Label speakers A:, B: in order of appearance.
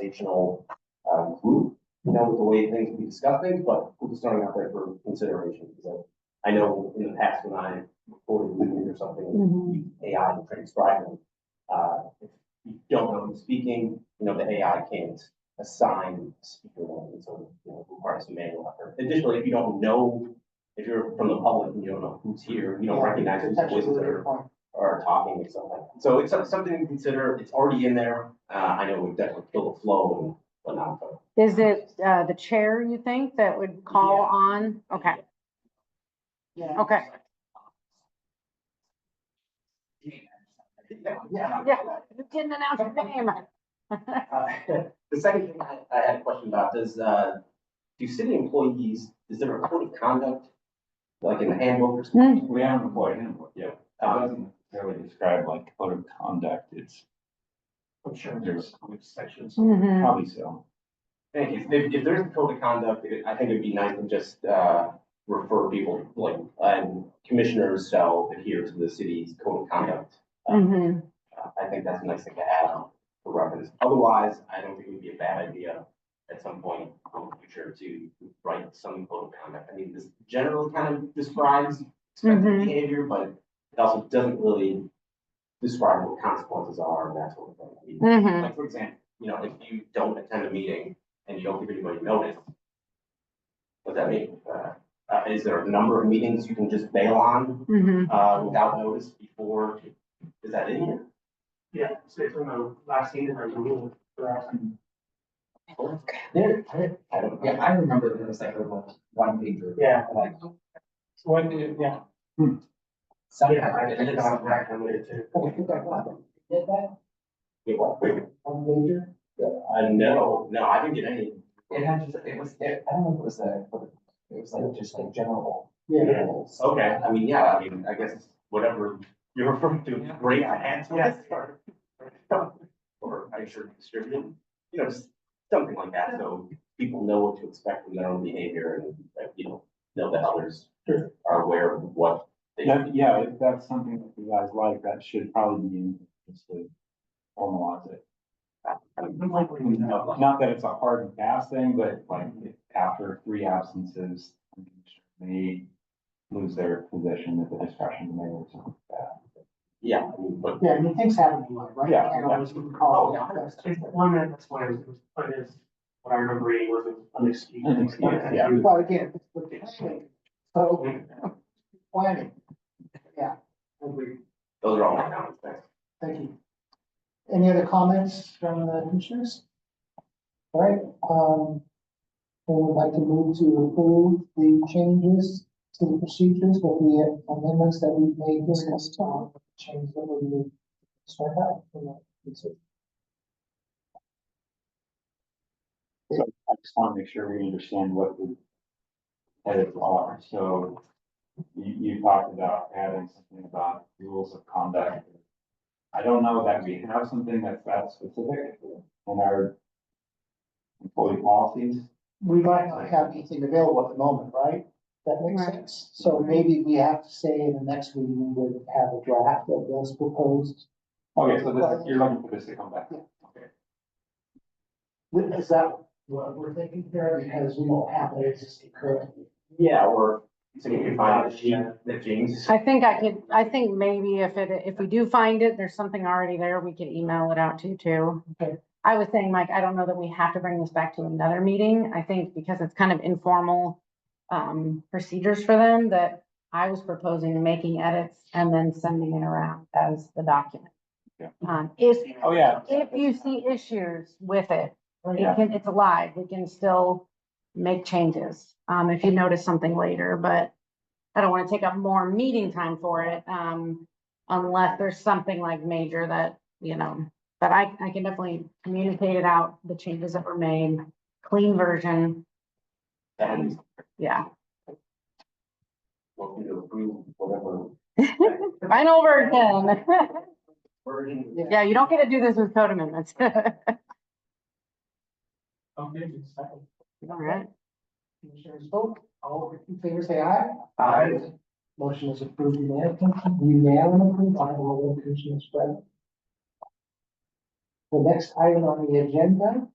A: conversational, um, group, you know, with the way things we discuss things, but we're just throwing out there for consideration, so. I know in the past when I recorded meetings or something,
B: Mm-hmm.
A: you AI and transcribe them. Uh, if you don't know who's speaking, you know, the AI can't assign a speaker one, and so, you know, requires some manual effort. Additionally, if you don't know, if you're from the public and you don't know who's here, you don't recognize whose voices are or talking or something. So it's some- something to consider. It's already in there. Uh, I know we've definitely killed the flow and whatnot, but.
B: Is it, uh, the chair, you think, that would call
A: Yeah.
B: on? Okay,
C: Yeah.
B: okay,
A: Yeah.
B: yeah, you didn't announce your name.
A: Uh, The second thing I, I had a question about is, uh, do city employees, is there a code of conduct? Like in the handbook or something?
B: Mm-hmm.
D: We have an employee handbook, yeah. It
A: Um,
D: doesn't necessarily describe like code of conduct, it's. I'm sure there's sections,
B: Mhm.
D: probably so.
A: Thank you. If, if there's a code of conduct, it- I think it'd be nice to just, uh, refer people, like, and commissioners shall adhere to the city's code of conduct. Um,
B: Mhm.
A: Uh, I think that's a nice thing to add on for reference. Otherwise, I don't think it would be a bad idea at some point in the future to write some code of conduct. I mean, this generally kind of describes expected
B: Mhm.
A: behavior, but it also doesn't really describe what consequences are and that sort of thing. I mean,
B: Mhm.
A: Like, for example, you know, if you don't attend a meeting and you don't give anybody notice, what does that mean? Uh, uh, is there a number of meetings you can just bail on,
B: Mhm.
A: uh, without notice before? Is that in here?
E: Yeah, so it's on the last scene of our rule.
F: There, there-
A: I don't know.
F: yeah, I remember there was like a little one pager,
E: Yeah,
F: like hmm.
E: so when, you- yeah.
F: something.
E: Yeah, I think I'm right, I'm with you.
F: Oh, I think I got it. Did that
A: Wait, what? Wait,
F: one pager?
A: Uh, no, no, I didn't get any.
F: It had just, it was, it, I don't know if it was a, it was like just like general.
E: Yeah.
F: rules.
A: Okay, I mean, yeah, I mean, I guess it's whatever you're referring to, great hands.
E: Yes.
A: Or or I sure distributed, you know, just something like that, so people know what to expect from their own behavior and, like, you know, know that others are aware of what they should
D: That, yeah, if that's something that you guys like, that should probably be in, just to formalize it. Not that it's a hard and fast thing, but like if after three absences, they lose their position at the discretion of the mayor or something like that.
A: Yeah, I mean, but,
C: Yeah, I mean, things happen in life, right?
D: Yeah.
C: I don't always recall.
A: oh, yeah, that's-
E: It's one minute, that's why it was, but it's, what I remember reading was an excuse.
D: An excuse, yeah.
C: But again, it's the planning, so, planning, yeah, agree,
A: those are all my comments, thanks.
C: thank you. Any other comments from the commissioners? All right, um, I would like to move to approve the changes to the procedures with the amendments that we've made this last time, change that we struck out. from that.
D: I just want to make sure we understand what the edits are. So you, you talked about adding something about rules of conduct. I don't know that we have something that's that specific in our employee policies.
C: we might not have anything available at the moment, right? That makes
B: Right.
C: sense. So maybe we have to say in the next meeting, we would have a draft of those proposed.
D: Okay, so this, is- you're looking for this to come back. Okay.
C: Is that what we're thinking here? Because we don't have it existing currently.
A: Yeah, or, so you can find the sheet that James.
B: I think I could, I think maybe if it, if we do find it, there's something already there, we could email it out to you too.
C: Okay.
B: I was saying, Mike, I don't know that we have to bring this back to another meeting. I think because it's kind of informal um, procedures for them that I was proposing making edits and then sending it around as the document.
D: Yeah.
B: Um, if,
D: Oh, yeah.
B: if you see issues with it,
D: Yeah.
B: it can, it's alive, we can still make changes, um, if you notice something later, but I don't wanna take up more meeting time for it, um, unless there's something like major that, you know, but I, I can definitely communicate it out, the changes that were made, clean version,
A: And
B: yeah,
A: welcome to approve whatever
B: final version.
A: version.
B: Yeah, you don't get to do this with code amendments.
E: Okay, it's second.
B: All right,
C: Commissioners vote, all in favor say aye.
A: Aye.
C: Motion is approved unanimously, unanimously, I will vote Commissioner Spread. the next item on the agenda